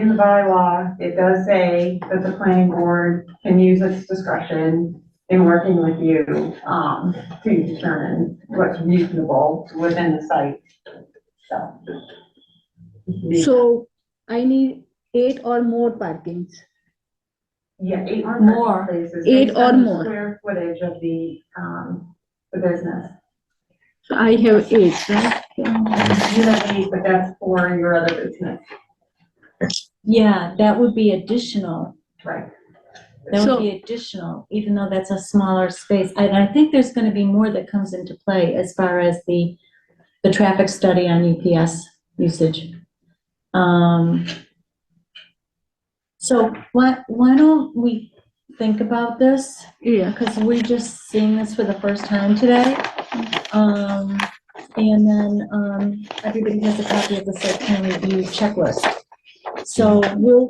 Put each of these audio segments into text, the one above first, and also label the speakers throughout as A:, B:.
A: in the bylaw, it does say that the planning board can use its discretion in working with you, um, to determine what's reasonable within the site, so.
B: So I need eight or more parkings.
A: Yeah, eight or
C: More.
A: more places.
B: Eight
A: based on
B: or
A: the
B: more.
A: Square footage of the, um, the business.
B: So I have eight, right?
A: You don't need, but that's for your other business,
C: Yeah, that would be additional.
A: right?
C: That
B: So-
C: would be additional, even though that's a smaller space. And I think there's gonna be more that comes into play as far as the, the traffic study on UPS usage. Um, so why, why don't we think about this?
B: Yeah,
C: Because we're just seeing this for the first time today. Um, and then, um, everybody has a copy of the site plan review checklist. So we'll,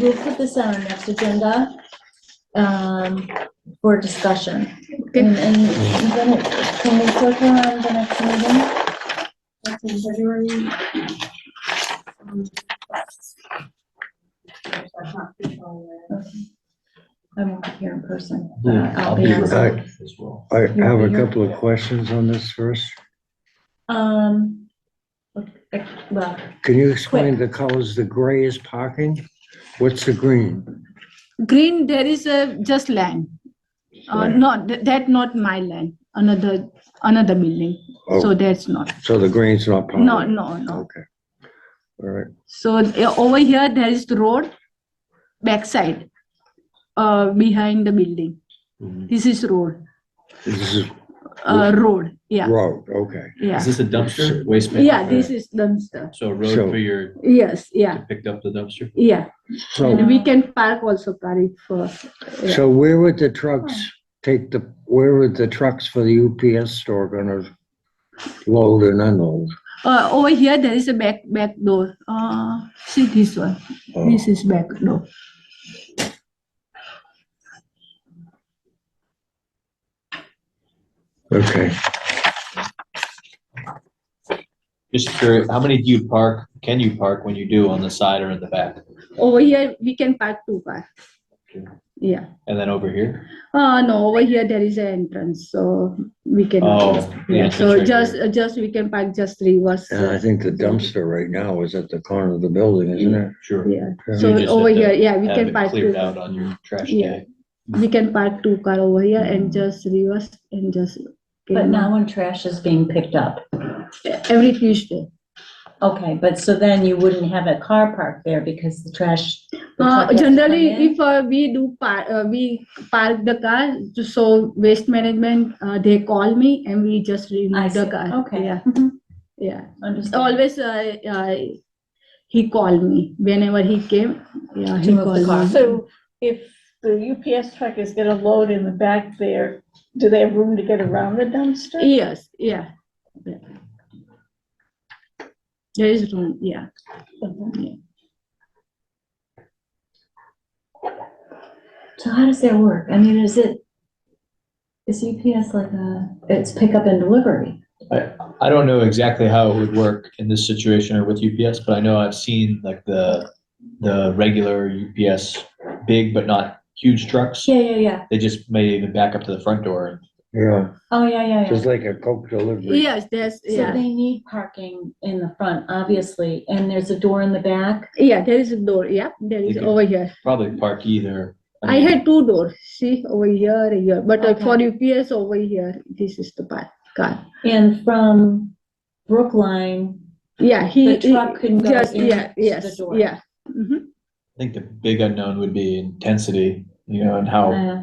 C: we'll put this on our next agenda, um, for discussion.
B: Okay.
C: And, and then, it- can we click on the next meeting?
A: That's in February. Um, That's not too far away.
C: I won't be here in person. but
D: Hmm, I'll be
C: on Zoom.
D: remote as well.
E: I
C: You'll
E: have
C: be
E: a
C: here?
E: couple of questions on this first.
C: Um, okay, well,
E: Can you explain the colors? The gray is parking? What's the green?
B: green, there is a just land. Uh,
E: Land.
B: not, th- that not my land, another, another building. So
E: Oh,
B: that's not,
E: so the green's not parking?
B: no, no, no.
E: Okay. All right,
B: So uh, over here, there is the road, backside, uh, behind the building.
D: Mhm.
B: This is road,
E: this is
B: uh, road, yeah,
E: road, okay.
B: yeah.
D: Is this a dumpster, waste man?
B: Yeah, this is dumpster.
D: So a road
E: So-
D: for your,
B: Yes, yeah,
D: to pick up the dumpster?
B: yeah. And
E: So,
B: we can park also car it for, yeah.
E: so where would the trucks take the, where would the trucks for the UPS store gonna load and unload?
B: uh, over here, there is a back, back door. Uh, see this one,
E: Oh,
B: this is back door.
E: Okay,
D: Just curious, how many do you park, can you park when you do on the side or in the back?
B: Over here, we can park two car.
D: Okay.
B: Yeah,
D: And then over here?
B: uh, no, over here, there is an entrance, so we can.
D: Oh, the entrance right
B: So
D: here.
B: just, uh, just, we can park just reverse.
E: and I
B: uh,
E: think the dumpster right now is at the corner of the building, isn't it?
D: Sure.
B: Yeah,
E: Yeah.
B: so
D: You just
B: over
D: have to
B: here, yeah, we
D: Have
B: can
D: it
B: park two,
D: cleared out on your trash
B: Yeah.
D: day.
B: we can park two car over here and just reverse and just.
C: but now when trash is being picked up.
B: Every Tuesday.
C: Okay, but so then you wouldn't have a car parked there because the trash. the truck
B: Uh,
C: has to come
B: generally,
C: in?
B: if uh, we do par uh, we park the car, so waste management, uh, they call me and we just
C: I
B: remove the
C: see.
B: car.
C: Okay.
B: Yeah,
C: Mhm.
B: yeah.
C: Understand.
B: Always, uh, uh, he called me whenever he came. Yeah, he
C: To move the car.
B: called me.
F: So if the UPS truck is gonna load in the back there, do they have room to get around the dumpster?
B: Yes, yeah. yeah. There is room, yeah.
C: So how does that work? I mean, is it, is UPS like a, it's pickup and delivery?
D: I don't know exactly how it would work in this situation or with UPS, but I know I've seen like the, the regular UPS, big but not huge trucks.
C: Yeah, yeah, yeah.
D: They just may even back up to the front door and
E: Yeah,
C: Oh, yeah, yeah, yeah.
E: just like a Coke delivery.
B: Yes, there's,
C: So
B: yeah,
C: they need parking in the front, obviously, and there's a door in the back.
B: yeah, there is a door, yeah, there is
D: Okay.
B: over here.
D: probably park either.
B: I
D: mean,
B: had two doors, see, over here, here, but uh, for UPS over here, this is the part, car.
C: And from Brookline,
B: Yeah, he.
C: The truck couldn't go
B: just- Yeah,
C: into the
B: yes,
C: door.
B: yeah. Mhm.
D: I think the big unknown would be intensity, you know, and how
C: uh,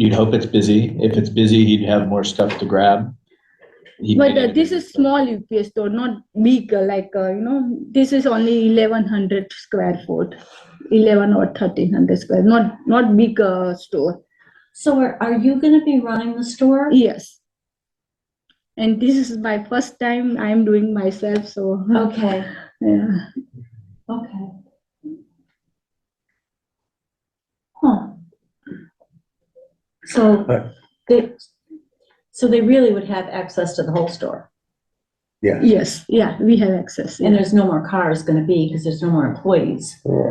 D: you'd hope it's busy. If it's busy, he'd have more stuff to grab. He'd
B: But
D: get
B: uh,
D: it.
B: this is small UPS store, not big, uh, like, uh, you know, this is only eleven hundred square foot. Eleven or thirteen hundred square, not, not big uh, store,
C: so are, are you gonna be running the store?
B: yes. And this is my first time I'm doing myself, so,
C: Okay,
B: yeah.
C: okay. Huh. So
E: Right.
C: they, so they really would have access to the whole store?
E: Yeah.
B: Yes, yeah, we have access. yeah.
C: And there's no more cars gonna be, because there's no more employees.